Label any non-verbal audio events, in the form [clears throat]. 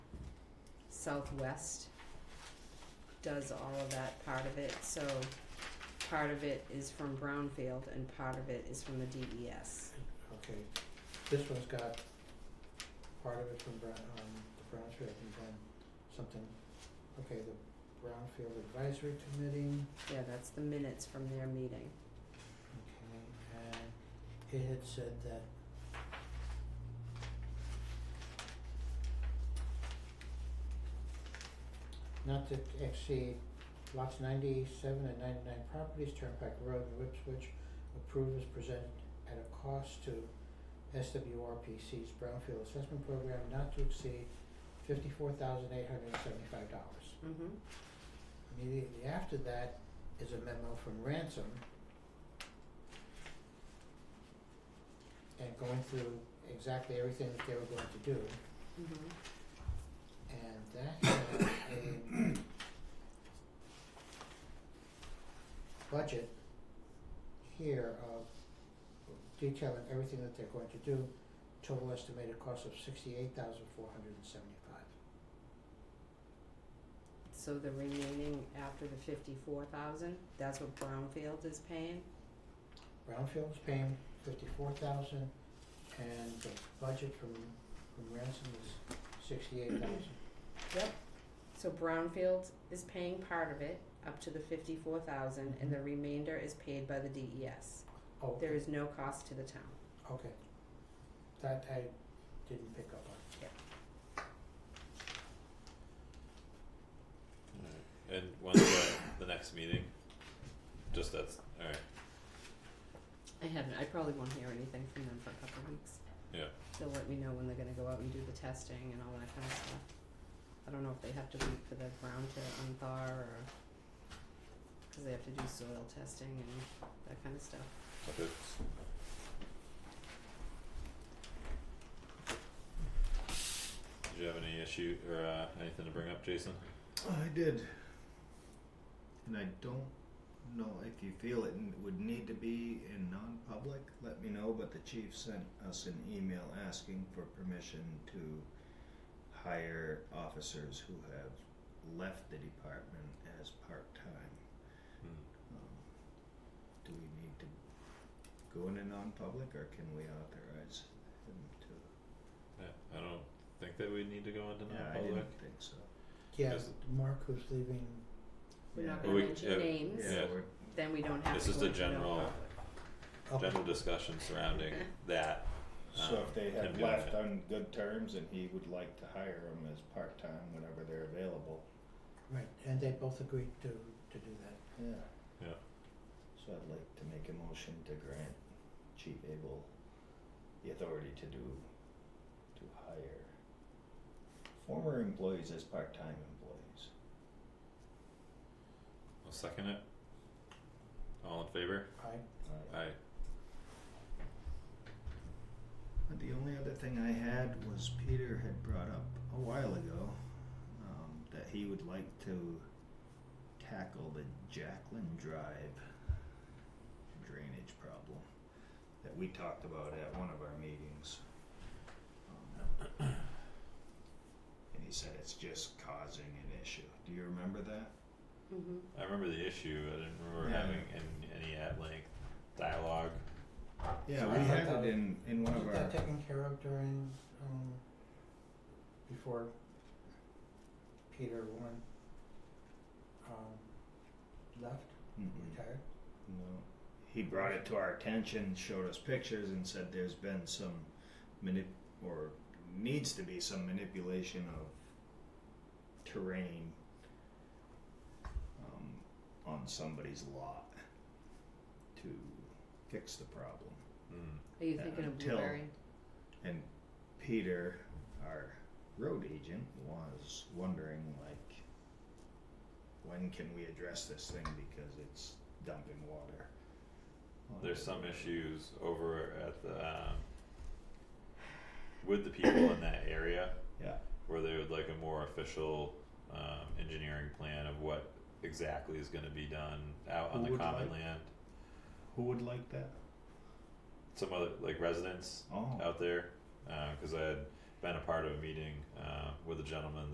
Southwest does all of that part of it, so part of it is from Brownfield and part of it is from the E DES. Okay, this one's got part of it from Brown, um, the Brownfield and then something, okay, the Brownfield Advisory Committee, Yeah, that's the minutes from their meeting. okay, and it had said that not to exceed lots ninety-seven and ninety-nine properties, Turnpike Road and Whipswich, approved is presented at a cost to SWRPC's Brownfield Assessment Program not to exceed fifty-four thousand eight hundred and seventy-five dollars. Mm-hmm. Immediately after that is a memo from Ransom. And going through exactly everything that they were going to do, Mm-hmm. and that had a budget here of detailing everything that they're going to do, total estimated cost of sixty-eight thousand four hundred and seventy-five. So the remaining after the fifty-four thousand, that's what Brownfield is paying? Brownfield's paying fifty-four thousand, and the budget from, from Ransom is sixty-eight thousand. Yep. So Brownfield is paying part of it, up to the fifty-four thousand, and the remainder is paid by the DES. Oh, [clears throat] There is no cost to the town. okay. That I didn't pick up on. Alright, and when's the, the next meeting? Just that's, alright, I haven't, I probably won't hear anything from them for a couple of weeks. Yeah. They'll let me know when they're gonna go out and do the testing and all that kind of stuff. I don't know if they have to wait for the ground to unthaw or, cause they have to do soil testing and that kind of stuff. okay. Did you have any issue or uh anything to bring up, Jason? I did. And I don't know if you feel it n- would need to be in non public, let me know. But the chief sent us an email asking for permission to hire officers who have left the department as part time. Hmm. Um, do we need to go into non public or can we authorize them to? Yeah, I don't think that we need to go into yeah, non I public. didn't think so. Yeah, Is- Mark who's leaving, We're not Yeah. gonna We- mention yeah, names, Yeah, Yeah. we're- then we don't have This to is go the into no general- public. okay, General discussion surrounding that. So um, if they him had doing left it. on good terms and he would like to hire them as part-time whenever they're available, right, and they both agreed to, to do that. yeah. Yeah. So I'd like to make a motion to grant Chief Abel the authority to do, to hire former employees as part-time employees. I'll second it. All in favor? I, Aye. Aye. But the only other thing I had was Peter had brought up a while ago um, that he would like to tackle the Jacqueline Drive drainage problem that we talked about at one of our meetings. Um, and he said it's just causing an issue. Do you remember that? Mm-hmm. I remember the issue, I didn't remember Yeah. having an any at length dialogue. Yeah, So we I had thought- it in, in one of wasn't our. that taken care of during, um, before Peter Warren, um, left, Mhm. retired? No. He brought it to our attention, showed us pictures, and said there's been some manip or needs to be some manipulation of terrain um, on somebody's lot to fix the problem. Hmm. Are you Yeah, thinking of until- Blueberry? And Peter, our road agent, was wondering like, when can we address this thing because it's dumping water. onto there's the some road. issues over at the um, with the people in that area Yeah. where they would like a more official um, engineering plan of what exactly is going to be done out on Who the would common like- land. Who would like that? Some other like residents Oh. out there because I had been a part of a meeting uh, with a gentleman